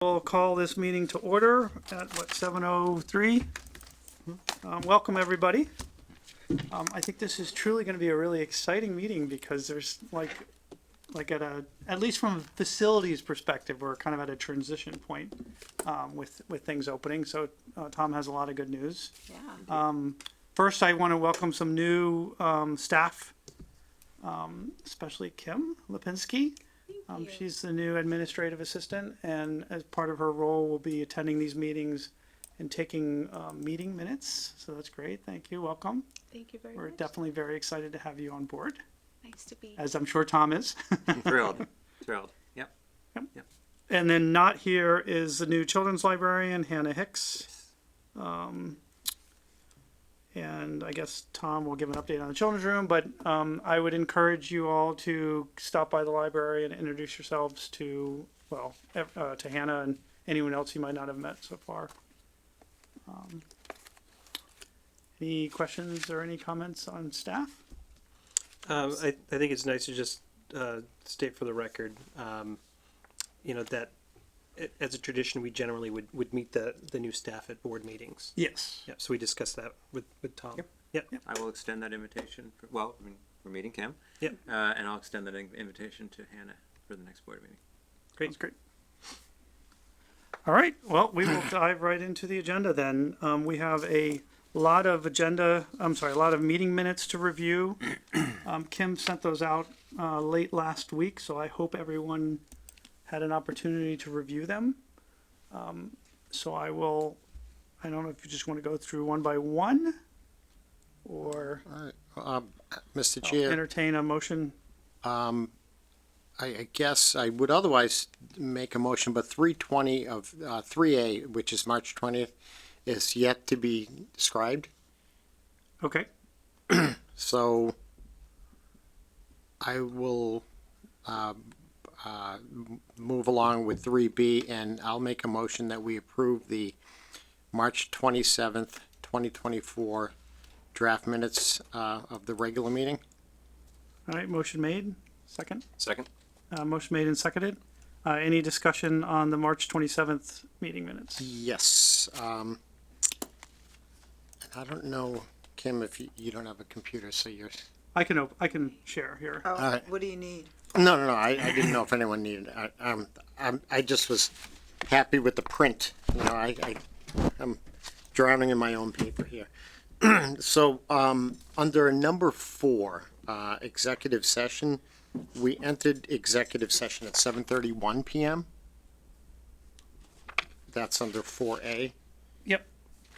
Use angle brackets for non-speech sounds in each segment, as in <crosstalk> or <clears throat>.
We'll call this meeting to order at what, 7:03? Um, Welcome, everybody. Um, I think this is truly going to be a really exciting meeting because there's like, like at a, at least from a facilities perspective, we're kind of at a transition point um, with, with things opening. So uh, Tom has a lot of good news. Um, Yeah. First, I want to welcome some new um, staff, um, especially Kim Lipinski. Um, she's the new administrative assistant, and as part of her role, will be attending these meetings and taking um, meeting minutes. So that's great. Thank you. Welcome. Thank you very We're much. definitely very excited to have you on board, Nice to be. as I'm sure Tom is. thrilled, <laughs> thrilled. Yep. and then not here is the new children's librarian Hannah Hicks. Um, and I guess Tom will give an update on the children's room. But um, I would encourage you all to stop by the library and introduce yourselves to well ev- uh, to Hannah and anyone else you might not have met so far. Um, any questions or any comments on staff? Um, I, I think it's nice to just uh, state for the record, um, you know, that a- as a tradition, we generally would, would meet the, the new staff at board meetings. Yes. Yeah, so we discussed that with, with Tom. Yep. Yep. I will extend that invitation. For, well, I mean, we're meeting Kim. Yep. Uh, and I'll extend that in- invitation to Hannah for the next board meeting. Great. That's great. All right. Well, we will dive right into the agenda then. Um, we have a lot of agenda, I'm sorry, a lot of meeting minutes to review. Um, Kim sent those out uh, late last week, so I hope everyone had an opportunity to review them. Um, so I will, I don't know if you just want to go through one by one or All right, um, Mr. Oh, Chair, entertain a motion. I, I guess I would otherwise make a motion, but three twenty of, uh, three A, which is March twentieth, is yet to be described, Okay. so I will, uh, uh, m- move along with three B, and I'll make a motion that we approve the March twenty-seventh, twenty twenty-four draft minutes, uh, of the regular meeting. All right. Motion made. Second. Second. Uh, motion made and seconded. Uh, any discussion on the March twenty-seventh meeting minutes? Yes, um, and I don't know, Kim, if you, you don't have a computer, so you're, I can, op- I can share here. Oh, Alright. what do you need? no, no, no, I, I didn't know if anyone needed, I, um, I'm, I just was happy with the print, you know, I, I, I'm drowning in my own paper here. <clears throat> So, um, under number four, uh, executive session, we entered executive session at seven thirty-one PM. That's under four A, Yep.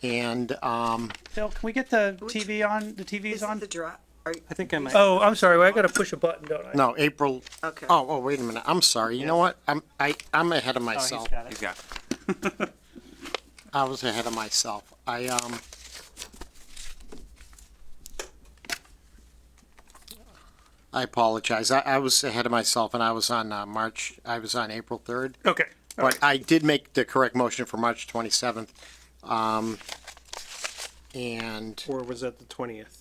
and, um, Phil, can we get the TV on, the Is TVs it on? the drop? Are, I think I might. Oh, I'm sorry. I gotta push a button, don't I? No, April. okay. Oh, oh, wait a minute. I'm sorry. You know what? I'm I I'm ahead of myself. He's got. I was ahead of myself. I um. I apologize. I, I was ahead of myself, and I was on uh, March. I was on April third, Okay. All but right. I did make the correct motion for March twenty seventh. Um. And Or was that the 20th?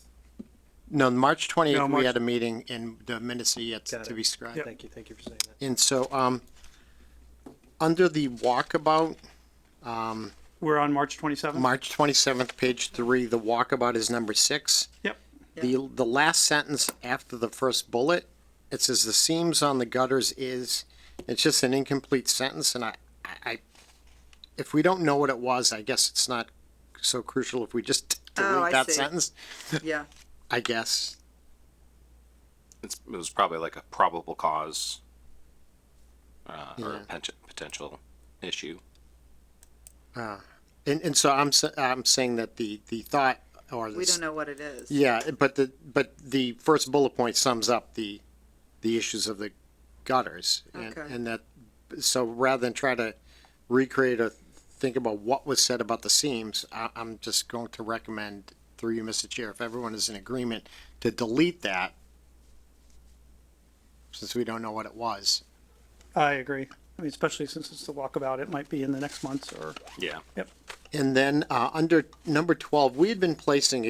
no, March twenty eighth. No, March- we had a meeting, and the minutes are yet Got to it. be scribed. Thank you. Thank you for saying that. And so, um, under the walkabout, We're on March twenty-seventh? March twenty-seventh, page three, the walkabout is number six. Yep. The, the last sentence after the first bullet, it says the seams on the gutters is, it's just an incomplete sentence and I, I- I, if we don't know what it was, I guess it's not so crucial if we just <laughs> Oh, I delete that see. sentence, Yeah. I guess. it's, it was probably like a probable cause uh, or Yeah. a pen- potential issue. And, and so I'm, sa- I'm saying that the, the thought or the We don't know what it is. Yeah, but the, but the first bullet point sums up the, the issues of the gutters. and- Okay. And that, so rather than try to recreate or think about what was said about the seams, I, I'm just going to recommend through you, Mr. Chair, if everyone is in agreement, to delete that, since we don't know what it was. I agree. I mean, especially since it's the walkabout, it might be in the next month's or. Yeah. And then, uh, under number twelve, we had been placing